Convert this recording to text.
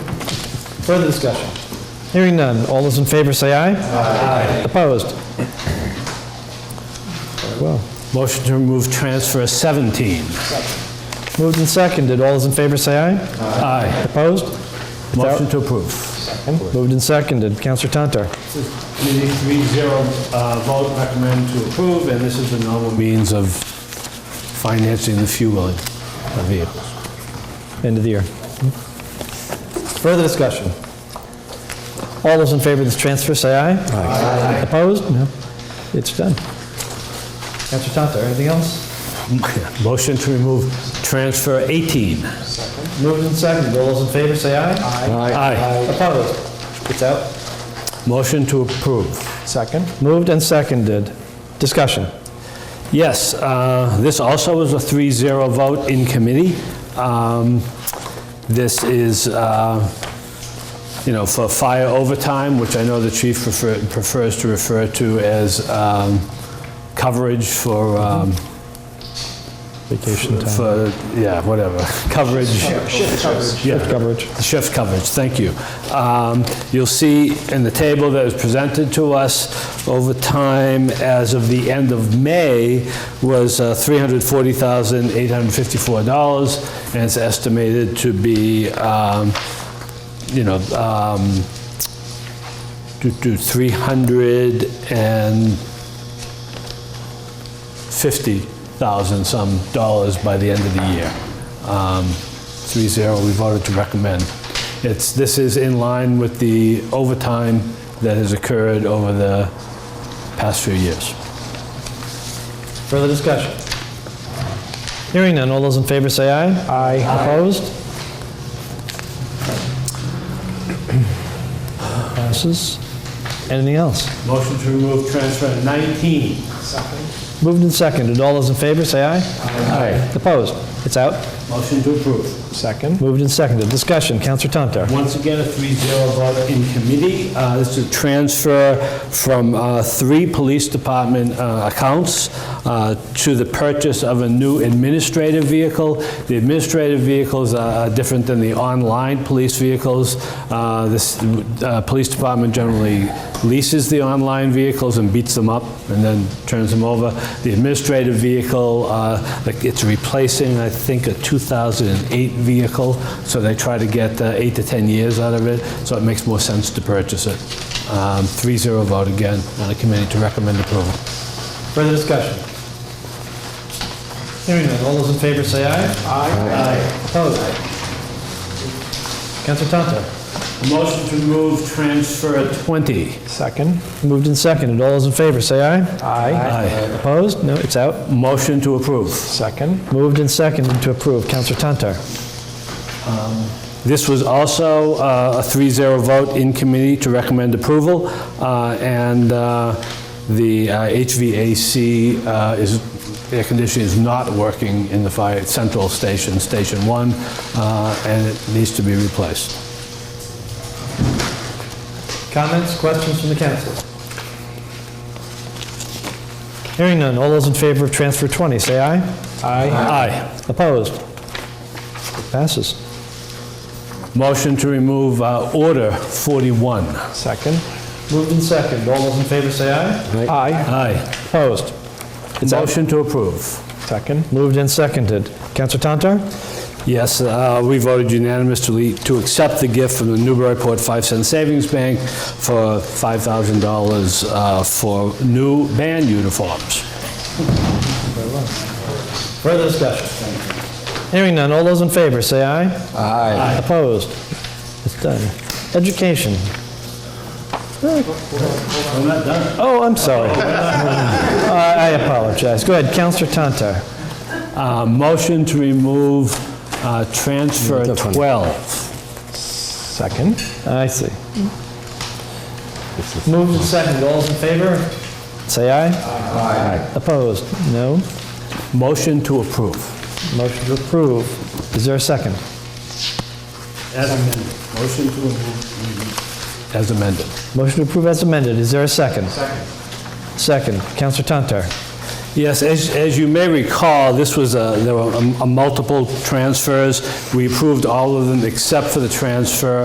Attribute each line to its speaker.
Speaker 1: Further discussion? Hearing none. All those in favor say aye. Aye. Opposed? Very well.
Speaker 2: Motion to remove transfer 17.
Speaker 1: Moved and seconded. All those in favor say aye.
Speaker 2: Aye.
Speaker 1: Opposed?
Speaker 2: Motion to approve.
Speaker 1: Moved and seconded. Counselor Tantar.
Speaker 2: Committee 3-0 uh, vote recommend to approve, and this is the normal means of financing the fueling of vehicles.
Speaker 1: End of the year. Further discussion? All those in favor of this transfer say aye. Aye. Opposed? No. It's done. Counselor Tantar, anything else?
Speaker 2: Motion to remove transfer 18.
Speaker 1: Moved and seconded. All those in favor say aye.
Speaker 2: Aye.
Speaker 1: Opposed? It's out.
Speaker 2: Motion to approve.
Speaker 1: Second. Moved and seconded. Discussion.
Speaker 2: Yes, uh, this also was a 3-0 vote in committee. Um, This is, uh, you know, for fire overtime, which I know the chief prefer- prefers to refer to as um, coverage for, um,
Speaker 1: Vacation
Speaker 2: for, yeah, whatever, coverage. Yeah,
Speaker 1: Coverage.
Speaker 2: the shift coverage, thank you. Um, You'll see in the table that was presented to us, over time, as of the end of May, was uh, $340,854, and it's estimated to be, um, you know, um, do do 350,000 some dollars by the end of the year. Um, 3-0, we voted to recommend. It's, this is in line with the overtime that has occurred over the past few years.
Speaker 1: Further discussion? Hearing none, all those in favor say aye. Aye. Opposed? Passes. Anything else?
Speaker 2: Motion to remove transfer 19.
Speaker 1: Moved and seconded, all those in favor say aye.
Speaker 2: Aye.
Speaker 1: Opposed? It's out.
Speaker 2: Motion to approve.
Speaker 1: Second. Moved and seconded, discussion, Counselor Tantar.
Speaker 2: Once again, a 3-0 vote in committee. Uh, This is a transfer from uh, three police department uh, accounts uh, to the purchase of a new administrative vehicle. The administrative vehicles are different than the online police vehicles. Uh, This uh, police department generally leases the online vehicles and beats them up and then turns them over. The administrative vehicle, uh, like, it's replacing, I think, a 2008 vehicle, so they try to get uh, eight to 10 years out of it, so it makes more sense to purchase it. Um, 3-0 vote again on the committee to recommend approval.
Speaker 1: Further discussion? Hearing none, all those in favor say aye. Aye. Opposed? Counselor Tantar.
Speaker 2: Motion to move transfer 20.
Speaker 1: Second. Moved and seconded. All those in favor, say aye.
Speaker 2: Aye.
Speaker 1: Opposed? No, it's out.
Speaker 2: Motion to approve.
Speaker 1: Second. Moved and seconded to approve. Counselor Tantar.
Speaker 2: This was also uh, a 3-0 vote in committee to recommend approval, uh, and uh, the uh, HVAC uh, is, air conditioning is not working in the fire, central station, Station 1, uh, and it needs to be replaced.
Speaker 1: Comments, questions from the council? Hearing none. All those in favor of transfer 20, say aye. Aye.
Speaker 2: Aye.
Speaker 1: Opposed? Passes.
Speaker 2: Motion to remove uh, Order 41.
Speaker 1: Second. Moved and seconded. All those in favor, say aye. Aye.
Speaker 2: Aye.
Speaker 1: Opposed? It's out.
Speaker 2: Motion to approve.
Speaker 1: Second. Moved and seconded. Counselor Tantar?
Speaker 2: Yes, uh, we voted unanimously to accept the gift from the Newburyport 5 Cent Savings Bank for $5,000 uh, for new band uniforms.
Speaker 1: Further discussion? Hearing none, all those in favor, say aye. Aye. Opposed? It's done. Education. Oh, I'm sorry. Uh, I apologize. Go ahead, Counselor Tantar.
Speaker 2: Uh, Motion to remove uh, transfer 12.
Speaker 1: Second. I see. Moved and seconded, all those in favor? Say aye. Aye. Opposed? No.
Speaker 2: Motion to approve.
Speaker 1: Motion to approve. Is there a second?
Speaker 2: As amended. Motion to approve. As amended.
Speaker 1: Motion to approve as amended. Is there a second? Second. Second. Counselor Tantar.
Speaker 2: Yes, as, as you may recall, this was a, um, there were a- a multiple transfers. We approved all of them except for the transfer